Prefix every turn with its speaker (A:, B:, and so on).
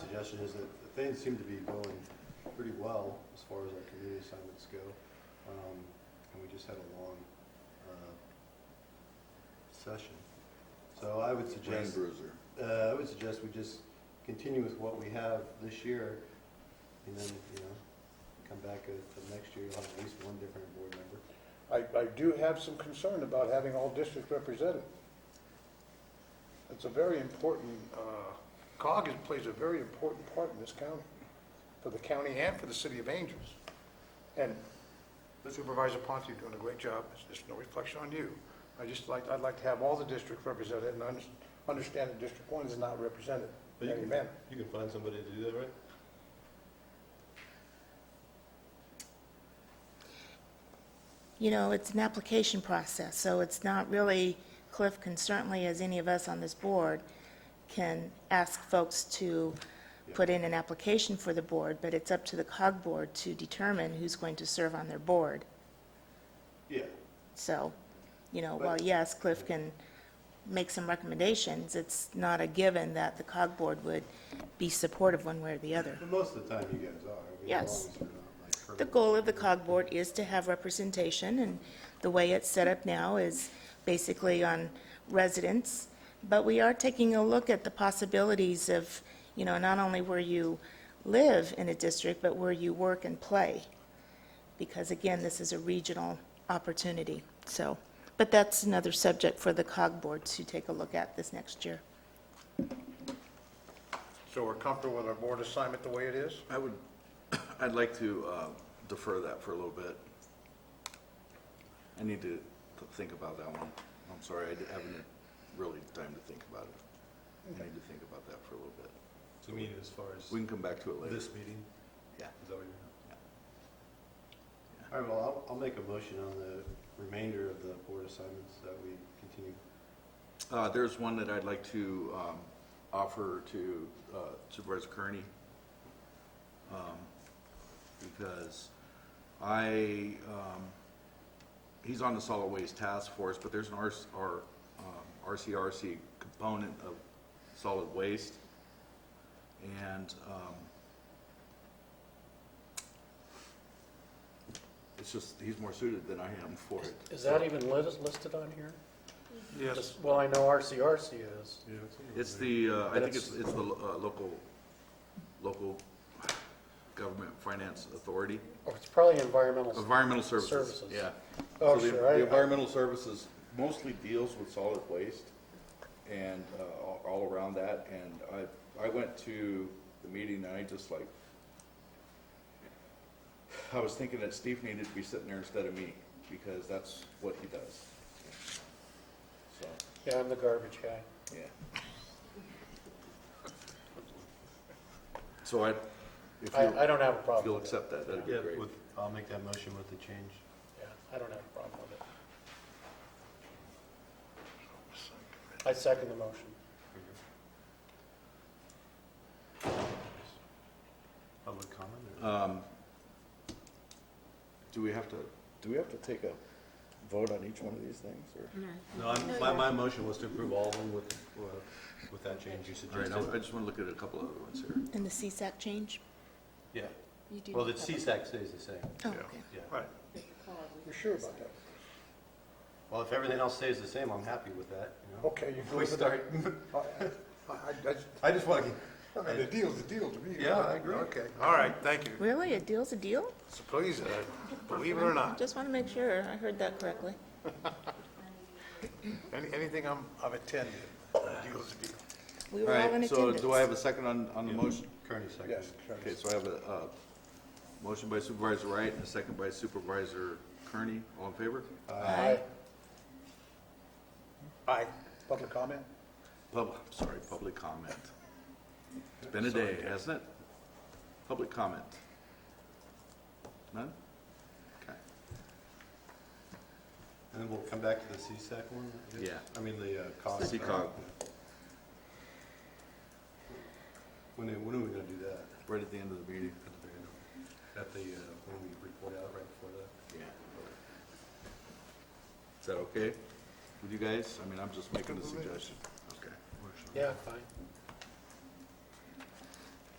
A: suggestion is that the things seem to be going pretty well as far as our community assignments go. Um, And we just had a long uh, session. So I would
B: Rain
A: suggest,
B: Bruiser.
A: uh, I would suggest we just continue with what we have this year, and then, you know, come back at the next year, we'll have at least one different board member.
C: I, I do have some concern about having all districts represented. It's a very important, uh, COG is- plays a very important part in this county, for the county and for the city of Angels. And Supervisor Ponte, you're doing a great job, it's, it's no reflection on you. I just like, I'd like to have all the districts represented and under- understand that District One is not represented.
A: But you can-
C: Amen.
A: You can find somebody to do that, right?
D: You know, it's an application process, so it's not really, Cliff can certainly, as any of us on this board, can ask folks to put in an application for the board, but it's up to the COG board to determine who's going to serve on their board.
A: Yeah.
D: So, you know,
A: But-
D: while yes, Cliff can make some recommendations, it's not a given that the COG board would be supportive one way or the other.
A: But most of the time you guys are. I mean, as
D: Yes.
A: long as you're not, like,
D: The
A: permanent.
D: goal of the COG board is to have representation, and the way it's set up now is basically on residents. But we are taking a look at the possibilities of, you know, not only where you live in a district, but where you work and play. Because again, this is a regional opportunity, so. But that's another subject for the COG board to take a look at this next year.
C: So we're comfortable with our board assignment the way it is?
B: I would, I'd like to uh, defer that for a little bit. I need to th- think about that one. I'm sorry, I di- haven't had really time to think about it. I need to think about that for a little bit.
A: So you mean as far as
B: We can come back to it later.
A: this meeting?
B: Yeah.
A: Is that what you're? All right, well, I'll, I'll make a motion on the remainder of the board assignments that we continue.
B: Uh, There's one that I'd like to um, offer to uh, Supervisor Kearney. um, Because I, um, he's on the solid waste task force, but there's an RC R- um, RCRC component of solid waste. And um, it's just, he's more suited than I am for it.
E: Is that even lit- listed on here? Yes. Well, I know RCRC is.
B: It's the, uh, I
E: But
B: think it's,
E: it's-
B: it's the lo- uh, local, local government finance authority,
E: Or Oh, it's probably environmental.
B: environmental services,
E: Services.
B: yeah.
C: Oh,
B: So the-
C: sure, I-
B: The environmental services mostly deals with solid waste and uh, all all around that, and I, I went to the meeting and I just like, I was thinking that Steve needed to be sitting there instead of me, because that's what he does. So,
E: Yeah, I'm the garbage guy.
B: yeah. So I, if
E: I, I
B: you'll,
E: don't have a
B: if
E: problem
B: you'll
E: with it.
B: accept that, that'd be great.
A: With, I'll make that motion with the change.
E: Yeah, I don't have a problem with it. I second the motion.
A: Public comment or?
B: Um, Do we have to, do we have to take a vote on each one of these things, or?
A: No, I'm- my, my motion was to approve all of them with, uh, with that change you
B: All right, I- I
A: suggested.
B: just want to look at a couple other ones here.
D: And the CSAC change?
A: Yeah. Well, the CSAC stays the same,
D: Oh, okay.
A: yeah.
C: Right. You're sure about that?
A: Well, if everything else stays the same, I'm happy with that, you know?
C: Okay, you
A: If
C: go
A: we
C: with that.
A: start,
C: I, I- I just-
A: I just want to,
C: I mean, the deal's the deal to me.
A: Yeah, I agree.
C: Okay, all right, thank you.
D: Really? A deal's a deal?
C: So please, uh, believe it or not,
D: Just want to make sure I heard that correctly.
C: any- anything I'm, I've attended, the deal's the deal.
D: We
B: All
D: were all in
B: right,
D: attendance.
B: so do I have a second on, on the motion?
A: Kearney second.
C: Yes, sure.
B: Okay, so I have a, uh, motion by Supervisor Wright and a second by Supervisor Kearney. All in favor?
D: Aye.
C: Aye. Public comment?
B: Pub, sorry, public comment. It's been a day, hasn't it? Public comment. None? Okay.
A: And then we'll come back to the CSAC one? I guess?
B: Yeah.
A: I mean, the uh, cog.
B: The cog.
A: When, are- when are we gonna do that?
B: Right at the end of the meeting.
A: At the, very end? at the, uh, when we report out right before that?
B: Yeah. Is that okay with you guys? I mean, I'm just making a suggestion. Okay.
E: Yeah, fine.